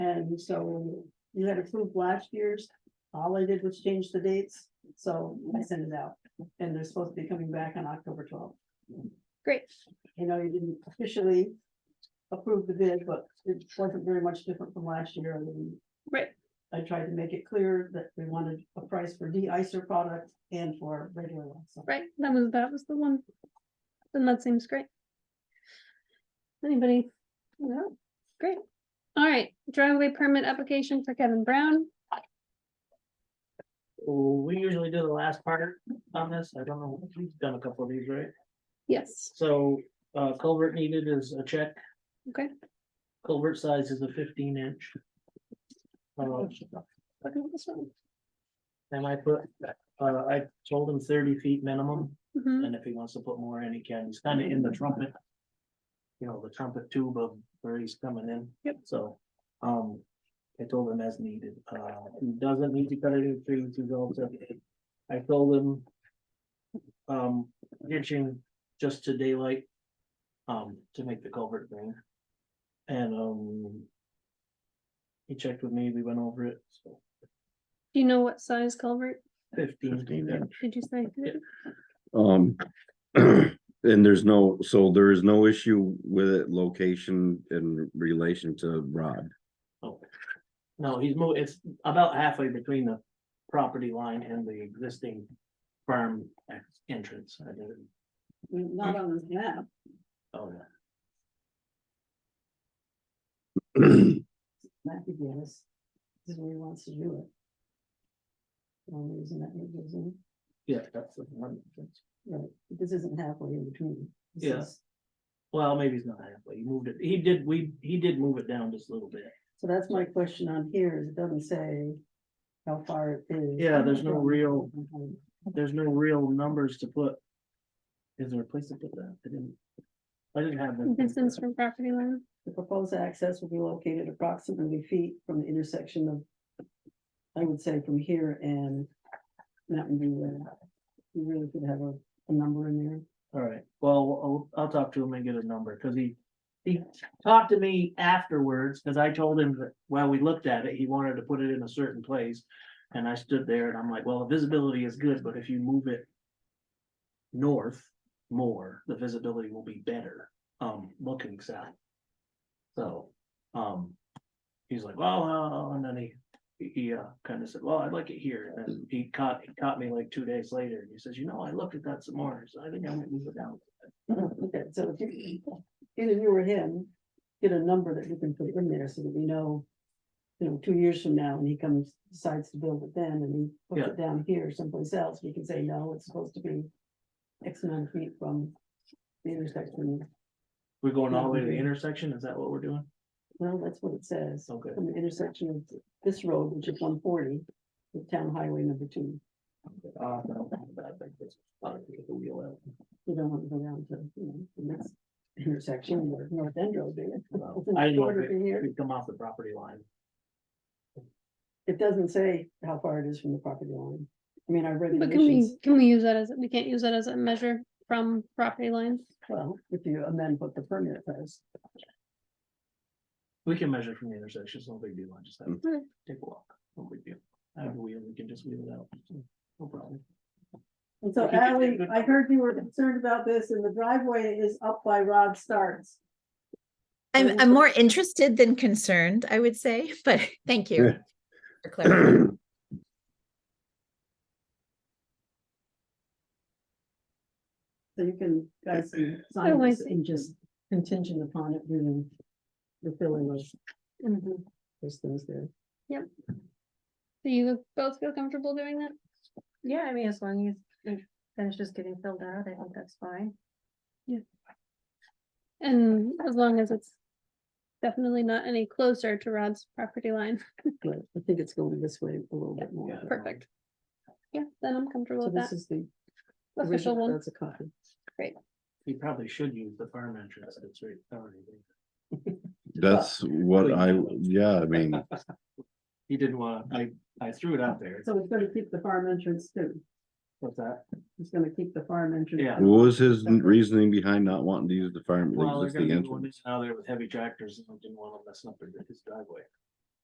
And so you had approved last year's, all I did was change the dates, so I sent it out. And they're supposed to be coming back on October twelfth. Great. You know, you didn't officially approve the bid, but it wasn't very much different from last year. I mean, Right. I tried to make it clear that we wanted a price for de-icer product and for regular one, so. Right, that was, that was the one. Then that seems great. Anybody? No, great. All right, driveway permit application for Kevin Brown. We usually do the last part on this. I don't know, we've done a couple of these, right? Yes, So, uh, culvert needed is a check. okay. Culvert size is a fifteen inch. Uh, Look at this one. and I put, uh, I told him thirty feet minimum, Mhm, and if he wants to put more in, he can. He's kind of in the trumpet. You know, the trumpet tube of where he's coming in. Yep. So, um, I told him as needed. Uh, he doesn't need to cut any trees. He's also, I told him. Um, ditching just to daylight. Um, to make the culvert green. And, um. He checked with me, we went over it, so Do you know what size culvert fifteen. 15 inch. did you say? Yeah. Um, and there's no, so there is no issue with it location in relation to Rod. No, he's mo, it's about halfway between the property line and the existing farm ex- entrance. I did it. mm, Not on this map, Oh, yeah. map again, this is where he wants to do it. The Only reason that he gives him. Yeah, that's the one. entrance. Right, but this isn't halfway in between. This Yeah. is- Well, maybe it's not halfway. He moved it. He did, we, he did move it down just a little bit. So that's my question on here, is it doesn't say how far it is. Yeah, there's no real- There's no real numbers to put. Is there a place to put that? I didn't. I didn't have. them. Distance from property line. The proposed access will be located approximately feet from the intersection of, I would say from here and Mountain View. Lane. You really could have a, a number in there. All right, well, I'll, I'll talk to him and get a number, cause he, he talked to me afterwards, cause I told him that while we looked at it, he wanted to put it in a certain place. And I stood there and I'm like, well, the visibility is good, but if you move it north more, the visibility will be better, um, looking south. So, um, he's like, well, uh, and then he, he uh, kind of said, well, I'd like it here. And then he caught, he caught me like two days later and he says, you know, I looked at that some more. So I think I'm gonna move it down. Okay, so if you, either you or him, get a number that you can put in there so that we know. You know, two years from now, when he comes, decides to build it then, and he puts Yeah. it down here someplace else, we can say, no, it's supposed to be. X amount of feet from the intersection, We're going all the way to the intersection? Is that what we're doing? well, that's what it says, Okay, from the intersection of this road, which is one forty. With town highway number two, Uh, no, but I think it's- I'll get the wheel out. we don't want to go down to, you know, the next intersection where North End Road is. Well, It's in I didn't know if order it- from here. if we come off the property line. It doesn't say how far it is from the property line. I mean, I read But can regulations, we, can we use that as, we can't use that as a measure from property line? well, if you amend what the permit says. We can measure from the intersection. It's no big deal. I just have Okay. to take a walk. No big deal. I have a wheel. We can just wheel it out. No problem. And so If you could Ally, do it- I heard you were concerned about this and the driveway is up by Rod Starts. I'm, Mhm. I'm more interested than concerned, I would say, but thank you. for clarifying. So you can guys can Oh, sign I this see. and just contingent upon it being the filling of those things there. Do you both feel comfortable doing that? Yeah, I mean, as long as it finishes getting filled out, I think that's fine. And as long as it's definitely not any closer to Rod's property line. But I think it's going this way a little bit more. Yeah. Perfect. Yeah, then I'm comfortable So with this that is the official original- one. That's a copy. We probably should use the farm entrance. It's right already. there. That's what I, yeah, I mean, He didn't want, I, I threw it out there. So it's gonna keep the farm entrance too. What's that? It's gonna keep the farm entrance. Yeah. what was his reasoning behind not wanting to use the farm? the Well, they're existing gonna be going entrance? in and out there with heavy tractors and I didn't want to mess up his driveway.